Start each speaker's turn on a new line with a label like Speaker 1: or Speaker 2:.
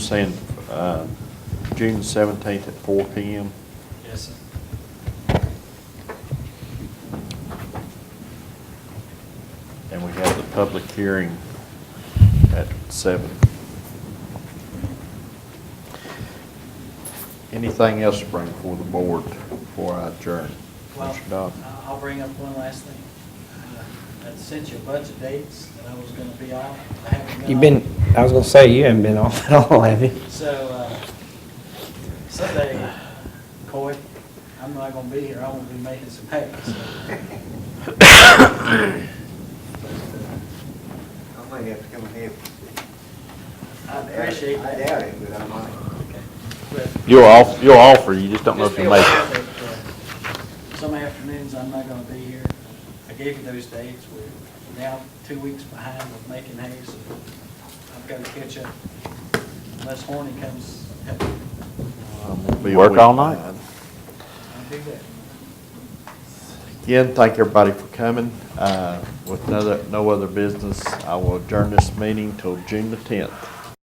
Speaker 1: saying, uh, June seventeenth at four P M.
Speaker 2: Yes, sir.
Speaker 1: And we have the public hearing at seven. Anything else to bring before the board before I adjourn?
Speaker 2: Well, uh,
Speaker 1: Mr. Dodd?
Speaker 2: I- I'll bring up one last thing. Uh, I sent you a bunch of dates that I was going to be off. I haven't
Speaker 3: You've been,
Speaker 2: off.
Speaker 3: I was gonna say, you haven't been off at all, have you?
Speaker 2: So, uh, someday, Coy, I'm not gonna be here, I will be making some hay, so.
Speaker 4: I might have to come and help.
Speaker 2: I appreciate
Speaker 4: I
Speaker 2: that.
Speaker 4: doubt it, but I might.
Speaker 2: But
Speaker 1: You'll off, you'll offer, you just don't know
Speaker 2: just
Speaker 1: if
Speaker 2: be
Speaker 1: you make
Speaker 2: aware
Speaker 1: it.
Speaker 2: that, uh, Some afternoons, I'm not gonna be here. I gave you those dates, we're now two weeks behind with making hay, so I've gotta catch up. Unless Horny comes, help me.
Speaker 1: I'm gonna be a
Speaker 5: Work
Speaker 1: week
Speaker 5: all night?
Speaker 1: behind.
Speaker 2: I'll do that.
Speaker 1: Again, thank everybody for coming. Uh, With no other, no other business, I will adjourn this meeting till June the tenth.